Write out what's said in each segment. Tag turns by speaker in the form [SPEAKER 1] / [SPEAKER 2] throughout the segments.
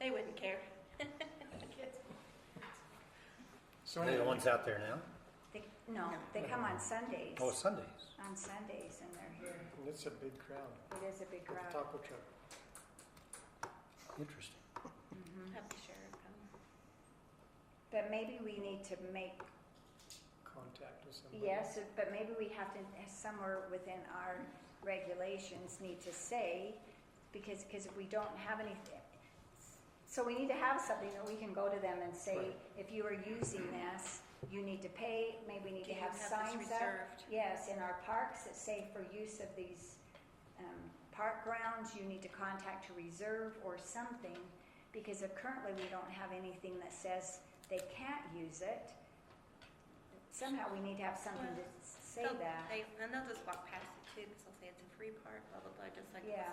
[SPEAKER 1] They wouldn't care.
[SPEAKER 2] So
[SPEAKER 3] Are they the
[SPEAKER 2] anyway,
[SPEAKER 3] ones out there now?
[SPEAKER 4] They, no, they come on Sundays,
[SPEAKER 3] Oh, it's Sundays.
[SPEAKER 4] on Sundays, and they're here.
[SPEAKER 2] it's a big crowd
[SPEAKER 4] It is a big
[SPEAKER 2] with the
[SPEAKER 4] crowd.
[SPEAKER 2] taco truck.
[SPEAKER 3] Interesting.
[SPEAKER 4] Mhm.
[SPEAKER 1] Have the sheriff come.
[SPEAKER 4] But maybe we need to make,
[SPEAKER 2] Contact with somebody.
[SPEAKER 4] yes, but maybe we have to, somewhere within our regulations, need to say, because, because if we don't have any, so we need to have something that we can go to them and say,
[SPEAKER 2] Right.
[SPEAKER 4] if you are using this, you need to pay, maybe we need
[SPEAKER 1] Do
[SPEAKER 4] to
[SPEAKER 1] you
[SPEAKER 4] have
[SPEAKER 1] this
[SPEAKER 4] signs up.
[SPEAKER 1] reserved?
[SPEAKER 4] Yes, in our parks that say for use of these um, park grounds, you need to contact to reserve or something, because uh, currently we don't have anything that says they can't use it. Somehow we need to have something to s- say
[SPEAKER 1] They'll-
[SPEAKER 4] that.
[SPEAKER 1] They, and they'll just walk past it too, because they'll say it's a free park, blah, blah, blah, just like this.
[SPEAKER 4] Yeah.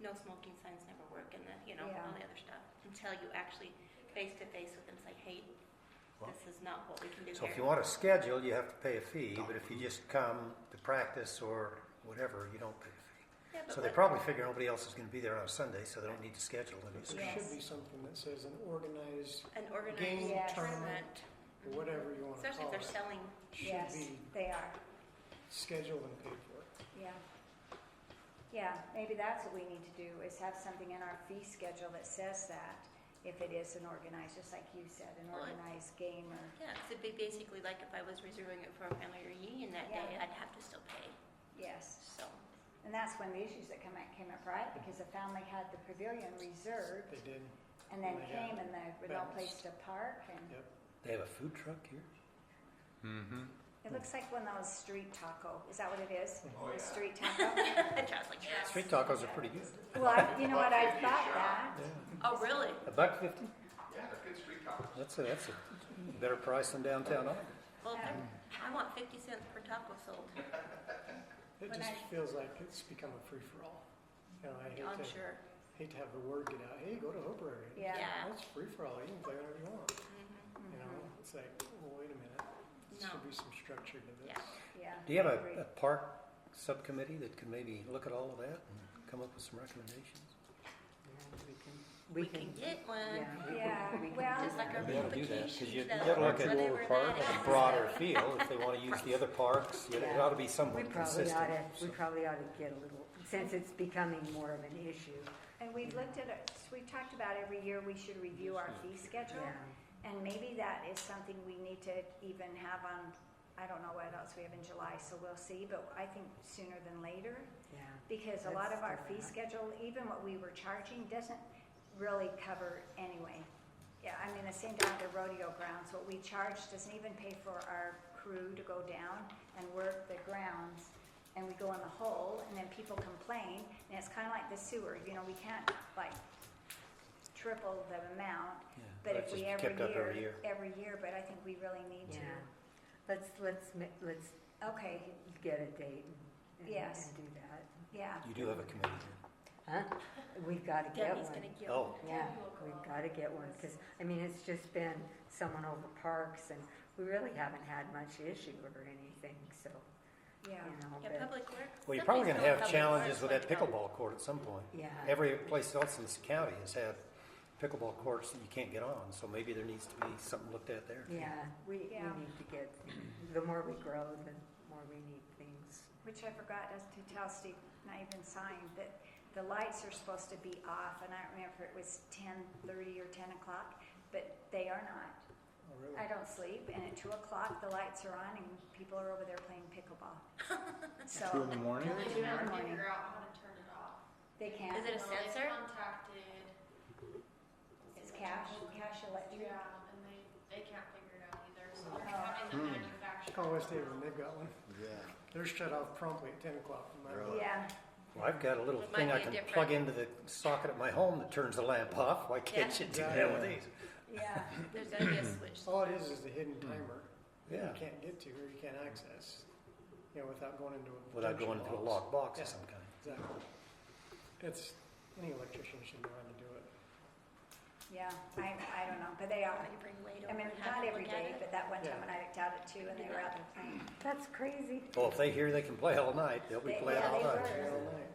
[SPEAKER 1] No smoking signs never work and the, you know,
[SPEAKER 4] Yeah.
[SPEAKER 1] all the other stuff. Until you actually face to face with them, say, hey,
[SPEAKER 3] Well-
[SPEAKER 1] this is not what we can do
[SPEAKER 3] So
[SPEAKER 1] here.
[SPEAKER 3] if you want to schedule, you have to pay a fee, but if you just come to practice or whatever, you don't pay a
[SPEAKER 1] Yeah,
[SPEAKER 3] fee.
[SPEAKER 1] but
[SPEAKER 3] So they
[SPEAKER 1] what-
[SPEAKER 3] probably figure nobody else is going to be there on a Sunday, so they don't need to schedule any.
[SPEAKER 2] There
[SPEAKER 4] Yes.
[SPEAKER 2] should be something that says an organized,
[SPEAKER 1] An
[SPEAKER 2] Game
[SPEAKER 1] organized
[SPEAKER 4] Yes.
[SPEAKER 1] tournament,
[SPEAKER 2] or whatever you want to
[SPEAKER 1] especially if
[SPEAKER 2] call
[SPEAKER 1] they're
[SPEAKER 2] it,
[SPEAKER 1] selling,
[SPEAKER 4] Yes,
[SPEAKER 2] should be
[SPEAKER 4] they are,
[SPEAKER 2] scheduled and paid for.
[SPEAKER 4] yeah. Yeah, maybe that's what we need to do, is have something in our fee schedule that says that, if it is an organized, just like you said, an
[SPEAKER 1] Well, it-
[SPEAKER 4] organized game or,
[SPEAKER 1] yeah, 'cause it'd be basically like if I was reserving it for a family reunion that
[SPEAKER 4] Yeah.
[SPEAKER 1] day, I'd have to still pay,
[SPEAKER 4] yes.
[SPEAKER 1] so.
[SPEAKER 4] And that's when the issues that come up came up, right? Because the family had the pavilion reserved
[SPEAKER 2] They did,
[SPEAKER 4] and then
[SPEAKER 2] And they got
[SPEAKER 4] came and there was no place to park and
[SPEAKER 2] yep.
[SPEAKER 3] They have a food truck here?
[SPEAKER 5] Mm-hmm.
[SPEAKER 4] it looks like one of those street taco. Is that what it is?
[SPEAKER 6] Oh,
[SPEAKER 4] A
[SPEAKER 6] yeah.
[SPEAKER 4] Street taco?
[SPEAKER 1] John's like, yes.
[SPEAKER 3] Street tacos are pretty good.
[SPEAKER 4] Well, I, you know what, I
[SPEAKER 6] Buck fifty a
[SPEAKER 4] thought
[SPEAKER 6] shot.
[SPEAKER 4] that.
[SPEAKER 1] Oh, really?
[SPEAKER 3] A buck fifty?
[SPEAKER 6] Yeah, they're good street tacos.
[SPEAKER 3] That's a, that's a better price than downtown Ogden.
[SPEAKER 1] Well, if they're- I want fifty cents per taco sold.
[SPEAKER 2] It
[SPEAKER 4] When
[SPEAKER 2] just
[SPEAKER 4] I-
[SPEAKER 2] feels like it's become a free-for-all. You know, I hate
[SPEAKER 1] I'm
[SPEAKER 2] to,
[SPEAKER 1] sure.
[SPEAKER 2] hate to have the word get out, hey, go to Hope Area.
[SPEAKER 4] Yeah.
[SPEAKER 1] Yeah.
[SPEAKER 2] That's free-for-all, you can play whatever you want,
[SPEAKER 1] Mhm.
[SPEAKER 2] you
[SPEAKER 4] Mm-hmm.
[SPEAKER 2] know? It's like, well, wait a minute, there
[SPEAKER 1] No.
[SPEAKER 2] should be some structure to this. Oh,
[SPEAKER 1] Yeah.
[SPEAKER 4] Yeah.
[SPEAKER 3] Do you have a,
[SPEAKER 4] I agree.
[SPEAKER 3] a park subcommittee that could maybe look at all of that and come up with some recommendations?
[SPEAKER 1] Mm-hmm. We can get one,
[SPEAKER 4] Yeah, well,
[SPEAKER 1] just like our
[SPEAKER 3] They ought to do that,
[SPEAKER 1] vacation
[SPEAKER 3] 'cause you, you
[SPEAKER 1] stuff,
[SPEAKER 3] gotta look at
[SPEAKER 1] whatever
[SPEAKER 3] Lower Park
[SPEAKER 1] that
[SPEAKER 3] and
[SPEAKER 1] is.
[SPEAKER 3] broader field, if they wanna use the other parks, you know, it
[SPEAKER 7] Yeah.
[SPEAKER 3] ought to be
[SPEAKER 7] We
[SPEAKER 3] somewhat
[SPEAKER 7] probably
[SPEAKER 3] consistent.
[SPEAKER 7] ought to,
[SPEAKER 3] so.
[SPEAKER 7] we probably ought to get a little, since it's becoming more of an issue,
[SPEAKER 4] and we've looked at it, we've talked about every year we should review our fee schedule.
[SPEAKER 7] yeah.
[SPEAKER 4] And maybe that is something we need to even have on, I don't know what else we have in July, so we'll see, but I think sooner than later.
[SPEAKER 7] Yeah.
[SPEAKER 4] Because a lot
[SPEAKER 7] That's
[SPEAKER 4] of our
[SPEAKER 7] still
[SPEAKER 4] fee
[SPEAKER 7] not-
[SPEAKER 4] schedule, even what we were charging, doesn't really cover anyway. Yeah, I mean, the same down to rodeo grounds, what we charge doesn't even pay for our crew to go down and work the grounds. And we go in the hole and then people complain, and it's kinda like the sewer, you know, we can't like triple the amount.
[SPEAKER 3] Yeah,
[SPEAKER 4] But
[SPEAKER 3] that's
[SPEAKER 4] if we
[SPEAKER 3] just
[SPEAKER 4] every
[SPEAKER 3] kept up every year.
[SPEAKER 4] year, every year, but I think we really need
[SPEAKER 7] Yeah,
[SPEAKER 4] to.
[SPEAKER 7] let's, let's, ma- let's
[SPEAKER 4] Okay,
[SPEAKER 7] get a date and, and-
[SPEAKER 4] Yes.
[SPEAKER 7] and do that.
[SPEAKER 4] yeah,
[SPEAKER 3] You do have a committee,
[SPEAKER 7] Huh? We've gotta get
[SPEAKER 1] Debbie's
[SPEAKER 7] one,
[SPEAKER 1] gonna
[SPEAKER 3] then?
[SPEAKER 1] get
[SPEAKER 3] oh,
[SPEAKER 7] yeah, we've gotta get one, cause, I mean, it's just been someone over parks and we really haven't had much issue or anything, so,
[SPEAKER 4] yeah.
[SPEAKER 7] you know,
[SPEAKER 1] Yeah,
[SPEAKER 7] but,
[SPEAKER 1] public works.
[SPEAKER 3] well, you're probably
[SPEAKER 1] Somebody's
[SPEAKER 3] gonna have
[SPEAKER 1] public
[SPEAKER 3] challenges
[SPEAKER 1] works
[SPEAKER 3] with that
[SPEAKER 1] like, um,
[SPEAKER 3] pickleball court at some point.
[SPEAKER 7] yeah,
[SPEAKER 3] Every place else in this county has had pickleball courts that you can't get on, so maybe there needs to be something looked at there.
[SPEAKER 7] yeah, we, we
[SPEAKER 4] Yeah.
[SPEAKER 7] need to get, the more we grow, the more we need things.
[SPEAKER 4] Which I forgot us to tell Steve, not even signed, that the lights are supposed to be off, and I don't remember if it was ten thirty or ten o'clock, but they are not.
[SPEAKER 2] Oh, really?
[SPEAKER 4] I don't sleep, and at two o'clock, the lights are on, and people are over there playing pickleball. So.
[SPEAKER 5] Two in the morning?
[SPEAKER 4] Two in the morning.
[SPEAKER 8] out how to turn it off.
[SPEAKER 4] They can,
[SPEAKER 1] Is it a
[SPEAKER 8] Well, they
[SPEAKER 1] sensor?
[SPEAKER 8] Contacted.
[SPEAKER 4] it's cash, cash electric.
[SPEAKER 8] Yeah, and they, they can't figure it out either, so
[SPEAKER 4] Oh.
[SPEAKER 8] they're having the manufacturer.
[SPEAKER 2] Call West Haven, they've got one.
[SPEAKER 5] Yeah.
[SPEAKER 2] They're shut off promptly at ten o'clock. no matter what.
[SPEAKER 4] Yeah,
[SPEAKER 3] Well, I've got a little
[SPEAKER 1] It might
[SPEAKER 3] thing I
[SPEAKER 1] be
[SPEAKER 3] can
[SPEAKER 1] different.
[SPEAKER 3] plug into the socket at my home that turns the lamp off, why can't you do that with
[SPEAKER 2] Yeah.
[SPEAKER 3] these?
[SPEAKER 4] yeah,
[SPEAKER 1] There's gonna be a switch.
[SPEAKER 2] All it is is the hidden timer
[SPEAKER 3] Hmm.
[SPEAKER 2] that
[SPEAKER 3] Yeah,
[SPEAKER 2] you can't get to or you can't access, you know, without going into a.
[SPEAKER 3] without
[SPEAKER 2] junction
[SPEAKER 3] going into a
[SPEAKER 2] box.
[SPEAKER 3] locked box
[SPEAKER 2] Yeah.
[SPEAKER 3] of some kind.
[SPEAKER 2] Exactly. It's, any electrician should know how to do it.
[SPEAKER 4] yeah, I, I don't know, but they
[SPEAKER 1] I
[SPEAKER 4] are.
[SPEAKER 1] can bring Wade
[SPEAKER 4] I
[SPEAKER 1] over
[SPEAKER 4] mean,
[SPEAKER 1] and have a
[SPEAKER 4] not every
[SPEAKER 1] look at it.
[SPEAKER 4] day, but that one time
[SPEAKER 2] Yeah.
[SPEAKER 4] when I looked out at two and they were out there playing.
[SPEAKER 7] That's crazy.
[SPEAKER 3] Well, if they hear they can play all night, they'll be
[SPEAKER 4] They-
[SPEAKER 3] playing
[SPEAKER 4] yeah,
[SPEAKER 3] all night.
[SPEAKER 4] they were.
[SPEAKER 2] All night.